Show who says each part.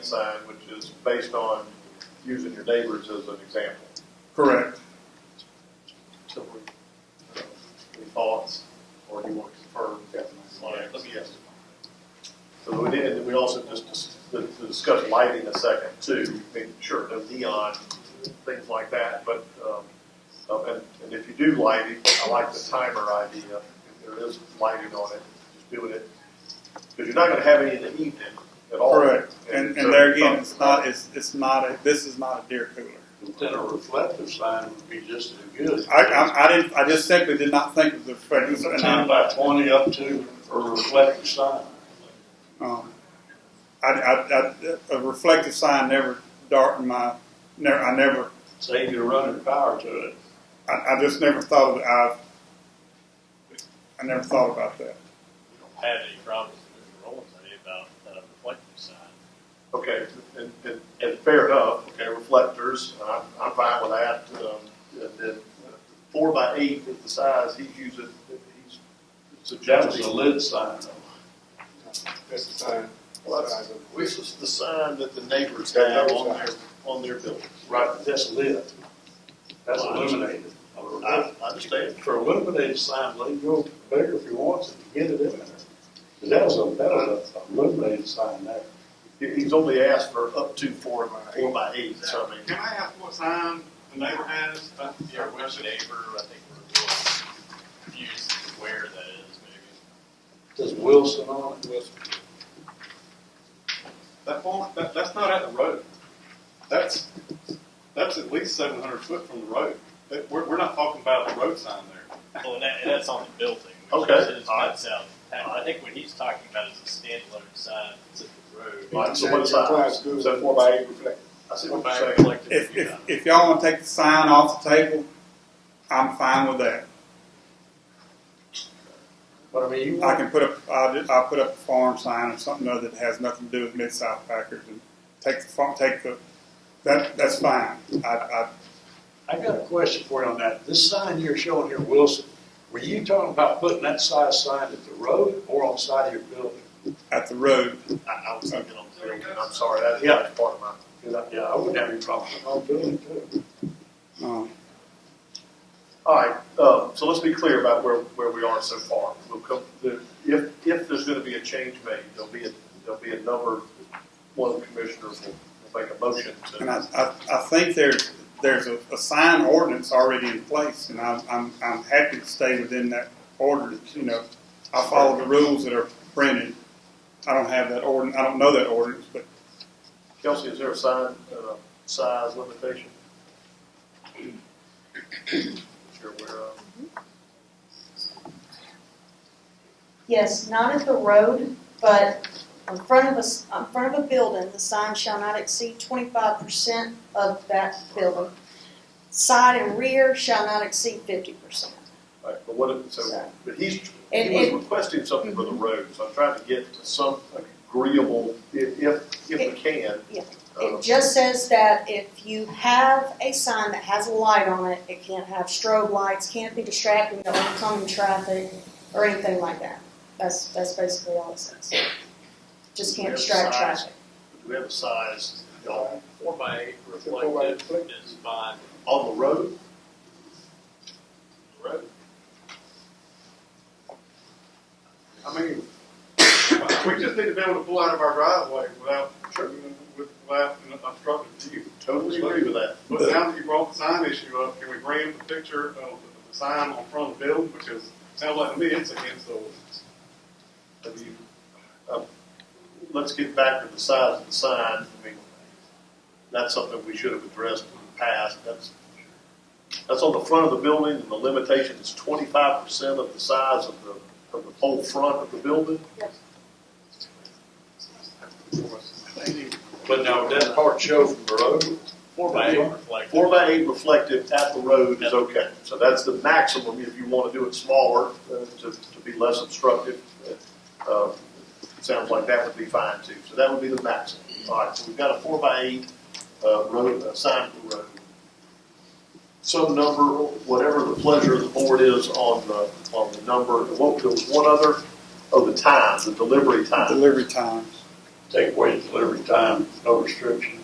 Speaker 1: sign, which is based on using your neighbors as an example.
Speaker 2: Correct.
Speaker 1: So we, any thoughts, or do you want to confirm? All right, let me ask. So we did, and we also just dis- to to discuss lighting a second too, making sure no neon, things like that, but, um, uh, and, and if you do lighting, I like the timer idea, if there is lighting on it, just doing it, because you're not gonna have any in the evening at all.
Speaker 2: Correct. And,
Speaker 1: so-
Speaker 2: and there again, it's not, it's, it's not, a, this is not a deer cooler.
Speaker 3: Then a reflective sign would be just as good.
Speaker 2: I, I, I didn't, I just simply did not think of the fragrance. And
Speaker 3: Ten
Speaker 2: I,
Speaker 3: by twenty up to a reflective sign.
Speaker 2: um, I, I, I, a reflective sign never darkened my, never, I never,
Speaker 3: Save you running power to it.
Speaker 2: I, I just never thought of it. I, I never thought about that.
Speaker 4: don't have any problems with the role study about uh, reflective sign.
Speaker 1: Okay, and, and, and fair enough, okay, reflectors, and I'm, I'm fine with that, um, and then uh, four by eight is the size he's using, that he's
Speaker 3: That was
Speaker 1: suggesting.
Speaker 3: a lid sign though.
Speaker 5: That's the sign.
Speaker 1: Well, that's- This is the sign that the neighbors have on their, on their building.
Speaker 3: Right, but that's lit. That's illuminated.
Speaker 1: I, I understand.
Speaker 3: For illuminated sign, leave your bigger if you want to, get it in there. But that was a, that was a illuminated sign there.
Speaker 1: He- He's only asked for up to four, four by eight, so I mean,
Speaker 5: Can I ask what sign the neighbor has? uh, That's the
Speaker 4: Yeah, with the neighbor, I think we're a little confused as to where that is, maybe.
Speaker 3: Does Wilson on it? Wilson.
Speaker 5: That form, that, that's not at the road. That's, that's at least seven hundred foot from the road. That, we're, we're not talking about a road sign there.
Speaker 4: Well, and that, and that's on the building. which
Speaker 1: Okay.
Speaker 4: is- It's not south. I think what he's talking about is a standalone sign that's at the road.
Speaker 1: like, so what size? So four by eight reflector. I see what you're saying.
Speaker 4: Reflective,
Speaker 2: If,
Speaker 4: you know.
Speaker 2: if, if y'all want to take the sign off the table, I'm fine with that.
Speaker 3: But I mean, you
Speaker 2: I
Speaker 3: want,
Speaker 2: can put up, I'll, ju- I'll put up a farm sign or something other that has nothing to do with Mid-South Packers and take the, farm- take the, that, that's fine. I, I,
Speaker 3: I got a question for you on that. This sign you're showing here, Wilson, were you talking about putting that size sign at the road or on the side of your building?
Speaker 2: at the road,
Speaker 1: I, I was thinking on the building, I'm sorry, that, yeah, that's part of my,
Speaker 3: Cause I, yeah, I wouldn't have any problem with my building too.
Speaker 2: um,
Speaker 1: All right, um, so let's be clear about where, where we are so far. We'll come, the- if, if there's gonna be a change made, there'll be a, there'll be a number, one of the commissioners will, will make a motion
Speaker 2: and I,
Speaker 1: to.
Speaker 2: I, I think there's, there's a, a sign ordinance already in place and I'm, I'm, I'm happy to stay within that ordinance, you know. I follow the rules that are printed. I don't have that ordinance, I don't know that ordinance, but
Speaker 1: Kelsey, is there a sign, uh, size limitation? That you're aware of?
Speaker 6: Yes, not at the road, but in front of us, in front of a building, the sign shall not exceed twenty-five percent of that building. Side and rear shall not exceed fifty percent.
Speaker 1: All right, but what, if- so,
Speaker 6: So-
Speaker 1: but he's, he
Speaker 6: And- Mm-hmm.
Speaker 1: was
Speaker 6: and-
Speaker 1: requesting something for the road, so I'm trying to get to some agreeable, if, if, if we can.
Speaker 6: Yeah.
Speaker 1: uh,
Speaker 6: It just says that if you have a sign that has a light on it, it can't have strobe lights, can't be distracting to oncoming traffic or anything like that. That's, that's basically all it says. Just can't
Speaker 1: We have
Speaker 6: distract
Speaker 1: signs.
Speaker 6: traffic.
Speaker 1: Do we have a size, y'all,
Speaker 4: uh, Four by eight
Speaker 3: Four by eight
Speaker 4: reflective is fine.
Speaker 1: on the road?
Speaker 4: The road,
Speaker 5: I mean, we just need to be able to pull out of our driveway without tripping, with- without an obstructed view.
Speaker 1: Totally agree with that.
Speaker 5: But now that you brought the sign issue up, can we bring the picture of the- the sign on front of the building, which is, sounds like to me, it's against the ordinance.
Speaker 1: Have you, uh, let's get back to the size of the sign, I mean, that's something we should have addressed in the past, that's, that's on the front of the building, and the limitation is twenty-five percent of the size of the, of the whole front of the building?
Speaker 3: But now, would that part show from the road?
Speaker 4: four by eight reflective.
Speaker 1: Four by eight reflective at the road is okay, so that's the maximum, if you wanna do it smaller, uh, to, to be less obstructive, uh, sounds like that would be fine too, so that would be the maximum. All right, so we've got a four by eight, uh, road, uh, sign for road. Some number, whatever the pleasure of the board is on the, on the number, and what, there was one other, oh, the time, the delivery time.
Speaker 2: delivery times.
Speaker 1: take away delivery time, no restriction.